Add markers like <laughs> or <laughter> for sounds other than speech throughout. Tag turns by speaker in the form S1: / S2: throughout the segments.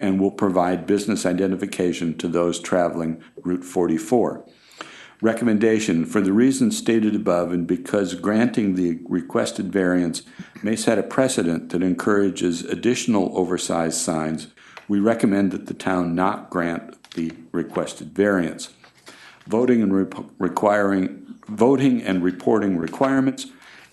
S1: and will provide business identification to those traveling Route 44. Recommendation, for the reasons stated above and because granting the requested variance may set a precedent that encourages additional oversized signs, we recommend that the town not grant the requested variance. Voting and rep- requiring, voting and reporting requirements,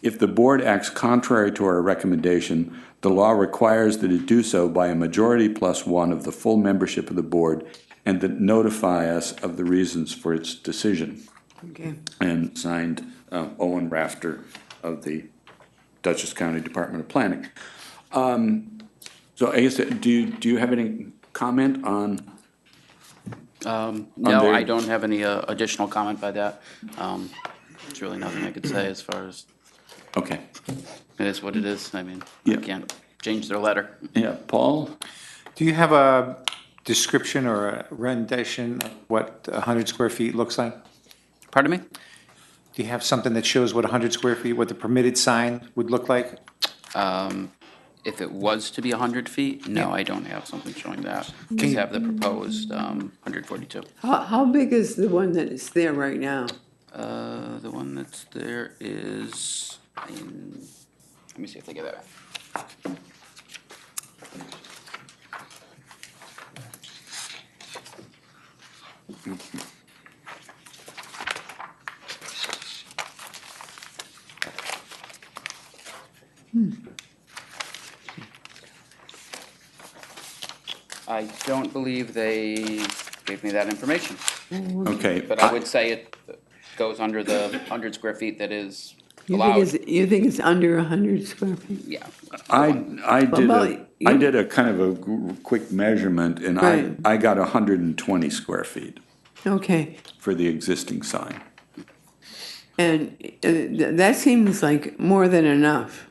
S1: if the board acts contrary to our recommendation, the law requires that it do so by a majority plus one of the full membership of the board and that notify us of the reasons for its decision.
S2: Okay,
S1: And signed uh, Owen Rafter of the Dutchess County Department of Planning. Um, So I guess, do you, do you have any comment on?
S3: No,
S1: there-
S3: I don't have any uh, additional comment by that. Um, There's really nothing I could say as far as,
S1: Okay.
S3: it is what it is. I mean,
S1: Yeah.
S3: I can't change their letter.
S1: Yeah, Paul?
S4: Do you have a description or a rendition of what 100 square feet looks like?
S3: Pardon me?
S4: Do you have something that shows what 100 square feet, what the permitted sign would look like?
S3: Um, If it was to be 100 feet, no, I don't have something showing that. Just have the proposed um, 142.
S2: how, how big is the one that is there right now?
S3: Uh, The one that's there is, in- let me see if they get that. Hmm. I don't believe they gave me that information.
S1: Okay.
S3: But I would say it goes under the 100 square feet that is
S2: You think
S3: allowed.
S2: it's, you think it's under a hundred square feet?
S3: Yeah.
S1: I, I did a,
S2: Well,
S1: I
S2: you-
S1: did a kind of a g- quick measurement and I,
S2: Right.
S1: I got hundred and twenty square feet
S2: Okay,
S1: for the existing sign.
S2: and uh, th- that seems like more than enough.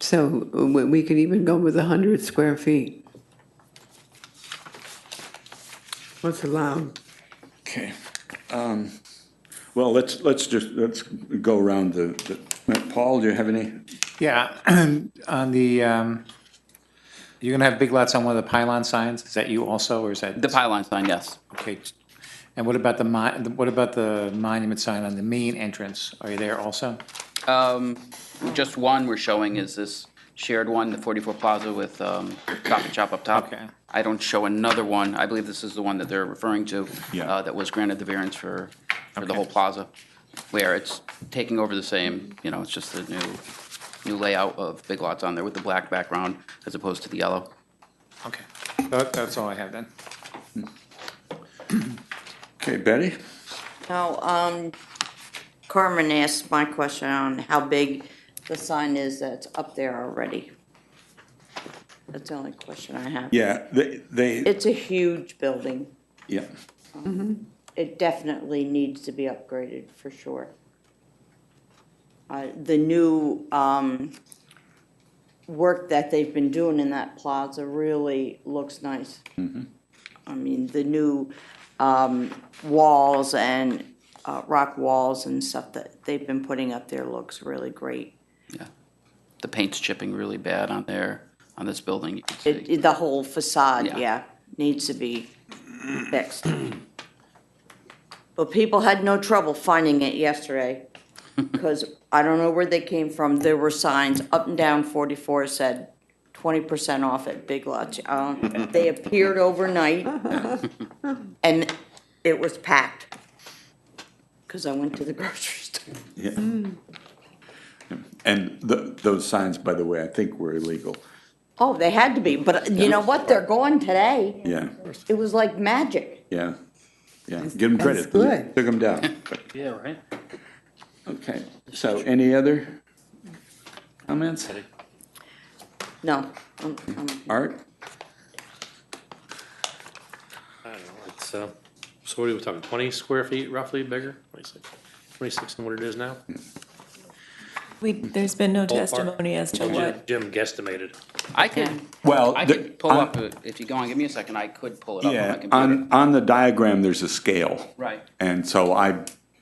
S2: So uh, we we could even go with a hundred square feet. What's allowed?
S1: Okay. Um, Well, let's, let's just, let's go around the, the, Paul, do you have any?
S4: Yeah, <clears throat> on the, um, you're going to have big lots on one of the pylon signs? Is that you also, or is that?
S3: The pylon sign, yes.
S4: Okay. And what about the mon, what about the monument sign on the main entrance? Are you there also?
S3: Um, Just one we're showing is this shared one, the 44 Plaza with um, Stop and Shop up top.
S4: Okay.
S3: I don't show another one. I believe this is the one that they're referring to.
S1: Yeah.
S3: uh, That was granted the variance for, for the
S4: Okay.
S3: whole plaza, where it's taking over the same, you know, it's just the new, new layout of big lots on there with the black background as opposed to the yellow.
S4: Okay. That- That's all I have then.
S1: Okay, Betty?
S5: Now, um, Carmen asked my question on how big the sign is that's up there already. That's the only question I have.
S1: Yeah, they, they,
S5: It's a huge building.
S1: yeah.
S5: It definitely needs to be upgraded, for sure. Uh, the new, um, work that they've been doing in that plaza really looks nice. I mean, the new, um, walls and, uh, rock walls and stuff that they've been putting up there looks really great.
S3: The paint's chipping really bad on there, on this building. you can see.
S5: It, it- the whole facade,
S3: Yeah.
S5: yeah, needs to be fixed. But people had no trouble finding it yesterday, because I don't know where they came from, there were signs up and down forty-four said twenty percent off at Big Lots. Um, they appeared overnight, and it was packed, because I went to the grocery <laughs> store.
S1: Yeah. And the, those signs, by the way, I think were illegal.
S5: Oh, they had to be, but you know what, they're gone today,
S1: Yeah,
S5: it was like magic.
S1: yeah, yeah. Give them credit.
S2: That's good.
S1: Took them down.
S3: <laughs> Yeah, right.
S1: Okay, so any other comments?
S5: No, I'm, I'm
S1: Art?
S6: I don't know, it's, uh, so what are we talking, twenty square feet roughly bigger, twenty-six, twenty-six than what it is now?
S7: We, there's been no
S6: Ballpark.
S7: testimony as to
S6: Jim
S7: what,
S6: Jim guesstimated.
S3: I can,
S1: Well,
S3: I
S1: the-
S3: could pull
S1: on-
S3: up, a- if you go on, give me a second, I could pull it up on my
S1: Yeah,
S3: computer.
S1: on, on the diagram, there's a scale.
S3: Right.
S1: And so I